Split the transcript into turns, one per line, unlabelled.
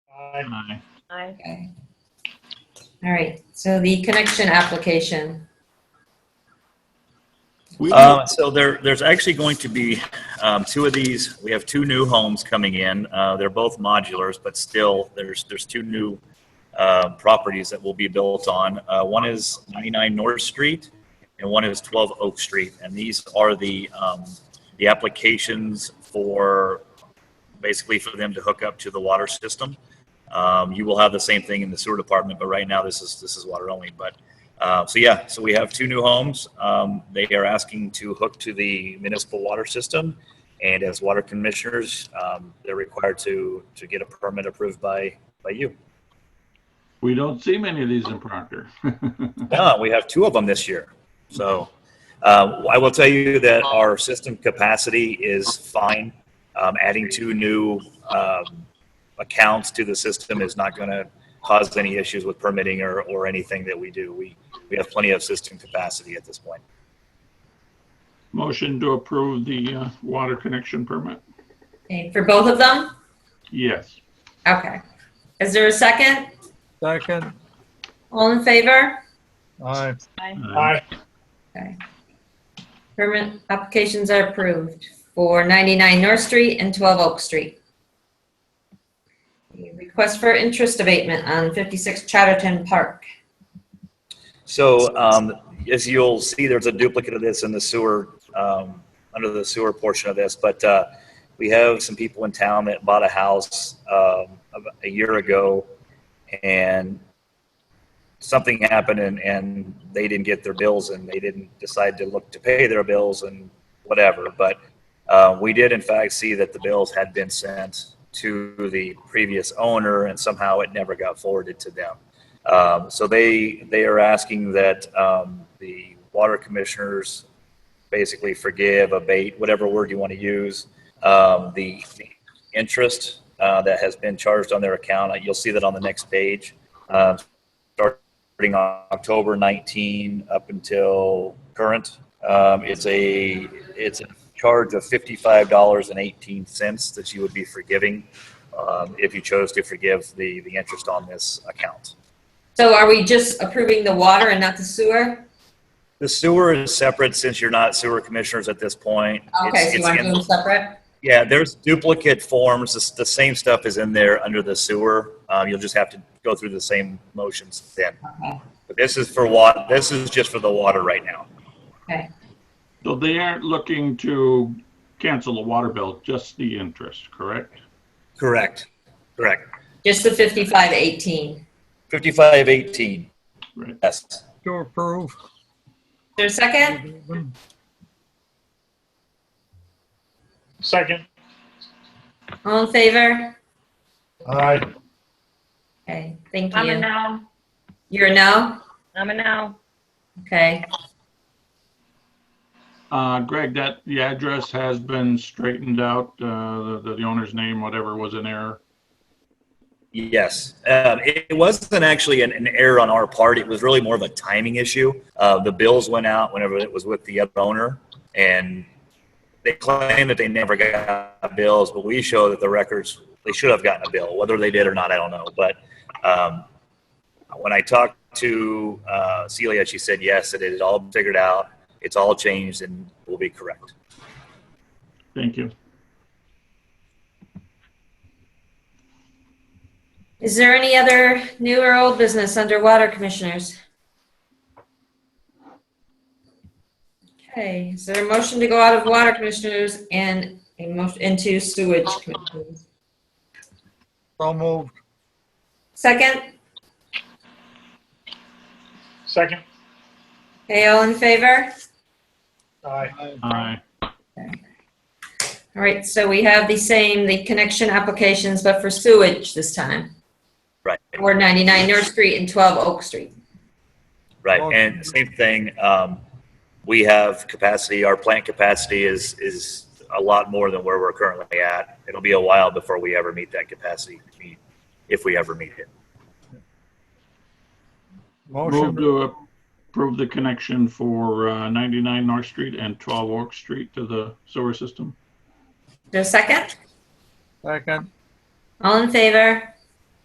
Aye.
Aye.
Okay. All right, so the connection application.
We-
Um, So there, there's actually going to be um, two of these. We have two new homes coming in. Uh, They're both modulars, but still, there's, there's two new uh, properties that will be built on. Uh, One is 99 North Street and one is 12 Oak Street. And these are the, um, the applications for, basically for them to hook up to the water system. Um, You will have the same thing in the sewer department, but right now, this is, this is water only. But uh, so yeah, so we have two new homes. Um, they are asking to hook to the municipal water system, and as water commissioners, um, they're required to to get a permit approved by by you.
We don't see many of these in Proctor.
No, Uh, we have two of them this year. So uh, I will tell you that our system capacity is fine. Um, adding two new um, accounts to the system is not going to cause any issues with permitting or, or anything that we do. We we have plenty of system capacity at this point.
Motion to approve the uh, water connection permit?
Okay, for both of them?
Yes.
Okay. Is there a second?
Second,
All in favor?
aye.
Aye.
Okay. Permit applications are approved for 99 North Street and 12 Oak Street. The Request for interest abatement on 56 Chatterton Park.
So um, as you'll see, there's a duplicate of this in the sewer, um, under the sewer portion of this, but uh, we have some people in town that bought a house um, about a year ago and something happened and, and they didn't get their bills and they didn't decide to look to pay their bills and whatever. But uh, we did in fact see that the bills had been sent to the previous owner and somehow it never got forwarded to them. Um, so they they are asking that um, the water commissioners basically forgive, abate, whatever word you want to use, um, the, the interest uh, that has been charged on their account. Uh, You'll see that on the next page, Um starting on October 19 up until current. Um, it's a it's a charge of $55.18 that you would be forgiving um, if you chose to forgive the the interest on this account.
So are we just approving the water and not the sewer?
The sewer is separate since you're not sewer commissioners at this point.
Okay,
It's-
so you
it's
want to
in-
do them separate?
Yeah, there's duplicate forms. It's- The same stuff is in there under the sewer. Uh, You'll just have to go through the same motions then.
Okay.
But this is for wa, this is just for the water right now.
Okay,
So they aren't looking to cancel the water bill, just the interest, correct?
Correct. Correct.
just the 5518. Is
5518,
Right.
yes.
To approve.
there a second?
Second.
All in favor?
Aye.
Okay, thank
I'm a
you.
no.
You're a no?
I'm a no.
Okay,
Uh, Greg, that, the address has been straightened out, uh, the, the owner's name, whatever was in error.
Yes, um, it, it wasn't actually an, an error on our part. It was really more of a timing issue. Uh, the bills went out whenever it was with the other owner, and they claim that they never got bills, but we show that the records they should have gotten a bill. Whether they did or not, I don't know. But um, when I talked to uh, Celia, she said yes, that it is all figured out. It's all changed and will be correct.
Thank you.
is there any other new or old business underwater, commissioners? Okay, is there a motion to go out of water, commissioners, and a motion into sewage, commissioners?
So moved.
Second?
Second.
Okay, all in favor?
Aye.
Aye.
All right, so we have the same, the connection applications, but for sewage this time.
Right.
Or 99 North Street and 12 Oak Street.
Right,
Okay.
and same thing, um, we have capacity, our plant capacity is, is a lot more than where we're currently at. It'll be a while before we ever meet that capacity, if we ever meet it.
Move
Motion,
to approve the connection for uh, 99 North Street and 12 Oak Street to the sewer system.
Is there a second?
second.
All in favor?